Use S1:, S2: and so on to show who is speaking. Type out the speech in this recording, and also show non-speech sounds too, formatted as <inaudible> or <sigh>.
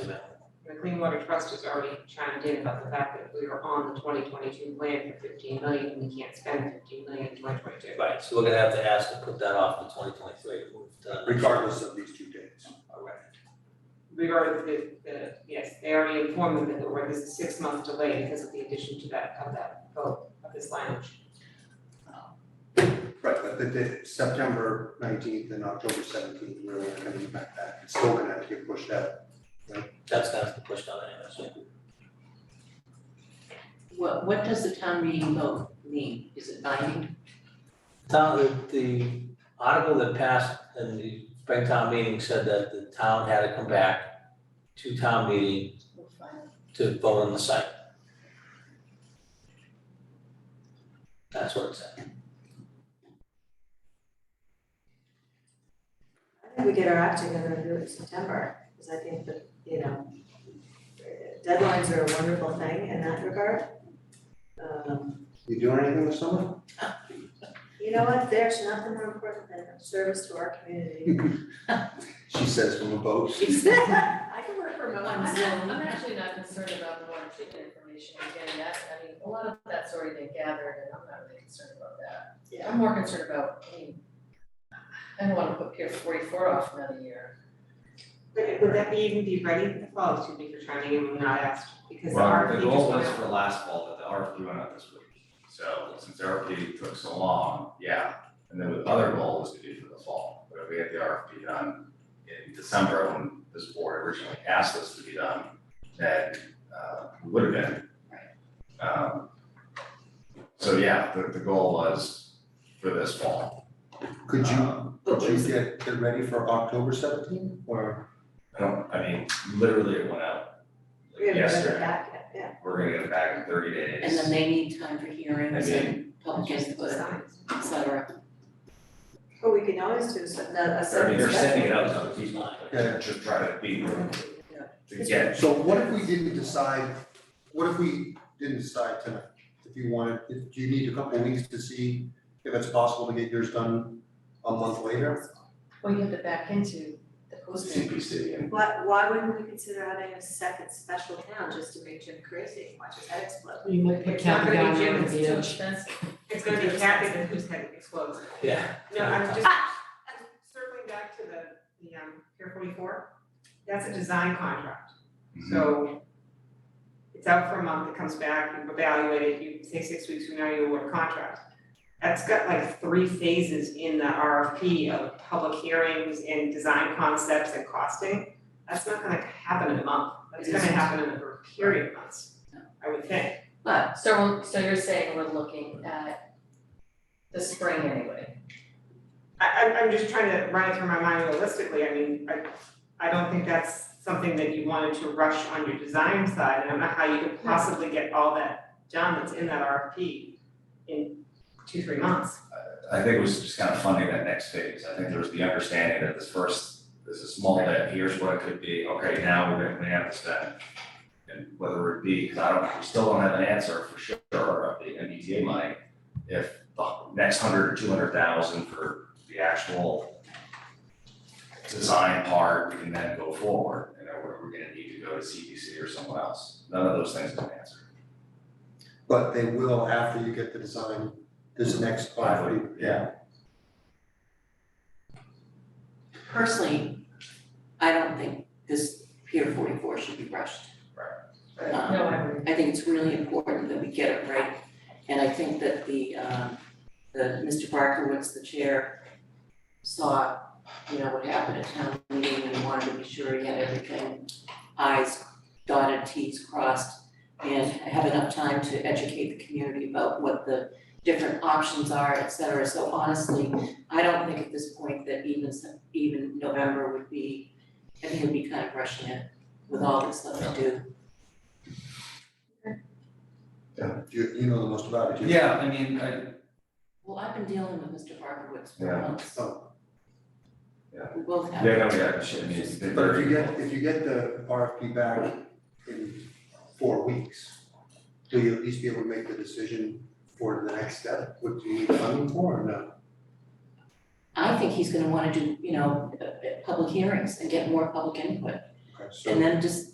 S1: estimate. The Clean Water Trust has already chimed in about the fact that we are on the twenty twenty-two plan for fifteen million, and we can't spend fifteen million in twenty twenty-two.
S2: Right, so we're gonna have to ask to put that off to twenty twenty-three,
S3: regardless of these two dates.
S1: We've already, the, the, yes, they already informed them that there was a six-month delay because of the addition to that, of that vote, of this language.
S3: Right, but the, the September nineteenth and October seventeenth really aren't gonna impact that, it's still gonna have to get pushed out.
S2: That's gonna have to push down anyway, so.
S4: What, what does the town meeting vote mean? Is it binding?
S2: Town, the, the article that passed in the spring town meeting said that the town had to come back to town meeting to vote on the site. That's what it said.
S5: I think we get our act together and do it in September, because I think that, you know, deadlines are a wonderful thing in that regard. Um,
S3: You doing anything this summer?
S5: you know what, there's nothing more important than service to our community.
S3: <laughs>
S5: <laughs>
S3: She says from a boat.
S5: I can work remote.
S6: I'm I'm actually not concerned about the water treatment information and getting that, I mean, a lot of that's already been gathered and I'm not really concerned about that.
S5: Yeah.
S6: I'm more concerned about, I mean, I don't wanna put Pier forty-four off another year.
S1: But would that be even be ready in the fall, excuse me for chiming in, we're not asked, because the
S7: Well,
S1: RFP
S7: the
S1: just
S7: goal
S1: went
S7: was
S1: out.
S7: for last fall, but the RFP went out this week. So since the RFP took so long, yeah, and then the other goal was to do for the fall, but if we had the RFP done in December when this board originally asked us to be done, then uh we would have been. Um so yeah, the the goal was for this fall.
S3: Could you,
S5: Uh,
S7: Um,
S3: could you get it ready for October seventeenth or?
S7: I don't, I mean, literally it went out
S5: We
S7: like
S5: haven't done it
S7: yesterday,
S5: back yet, yeah.
S7: we're gonna get it back in thirty days.
S4: And then they need time for hearings
S7: I mean-
S4: and public input, et cetera.
S5: But we can always do some, a
S7: I mean,
S5: certain
S7: they're
S5: special.
S7: sending it out to other people, like,
S3: Yeah.
S7: just try to be,
S4: Yeah.
S7: to get,
S3: So what if we didn't decide, what if we didn't decide tonight? If you wanted, if, do you need a couple weeks to see if it's possible to get yours done a month later?
S6: Well, you have to back into the posting.
S7: CPC and
S5: Why, why wouldn't we consider having a second special town just to make Jim crazy, watch his head explode?
S8: You might put
S1: It's not
S8: Kathy
S1: gonna
S8: down
S1: be
S8: there
S1: Jim,
S8: and
S1: it's
S8: be
S6: Too
S8: a-
S6: expensive.
S1: It's gonna be Kathy that who's head explodes.
S2: Yeah,
S1: No, I'm just, I'm circling back to the, the, um, Pier forty-four, that's a design contract,
S7: Mm-hmm.
S1: so it's out for a month, it comes back, you evaluate it, you say six weeks from now, you award a contract. That's got like three phases in the RFP of public hearings and design concepts and costing. That's not gonna happen in a month, that's gonna happen in a period of months, I would think.
S4: But
S6: So, we're- so you're saying we're looking at the spring anyway?
S1: I, I'm, I'm just trying to run it through my mind realistically, I mean, I, I don't think that's something that you wanted to rush on your design side, and I don't know how you could possibly get all that done that's in that RFP in two, three months.
S7: I think it was just kind of funding that next phase, I think there was the understanding that this first, this is small debt, here's what it could be, okay, now we're gonna have to spend. And whether it be, because I don't, we still don't have an answer for sure of the MBTA money, if the next hundred or two hundred thousand for the actual design part, we can then go forward, and then we're, we're gonna need to go to CPC or someone else, none of those things have been answered.
S3: But they will after you get the design, this next five week.
S7: Yeah.
S4: personally, I don't think this Pier forty-four should be rushed.
S7: Right.
S4: Um,
S6: No, I agree.
S4: I think it's really important that we get it right. And I think that the, um, the, Mr. Barkowitz, the chair, saw, you know, what happened at town meeting and wanted to be sure he had everything, i's dotted, t's crossed, and have enough time to educate the community about what the different options are, et cetera. So honestly, I don't think at this point that even, some- even November would be, I think it would be kind of rushing it with all this stuff to do.
S3: You, you know the most about it, you.
S7: Yeah, I mean, I,
S4: Well, I've been dealing with Mr. Barkowitz for
S7: Yeah.
S4: months.
S3: Oh.
S7: Yeah.
S4: We both have.
S7: Yeah, no, yeah, shit, I mean, it's been
S3: But if
S7: very-
S3: you get, if you get the RFP back in four weeks, will you at least be able to make the decision for the next step? What do you need funding for or no?
S4: I think he's gonna wanna do, you know, uh, uh, public hearings and get more public input,
S3: Okay, so-
S4: and then just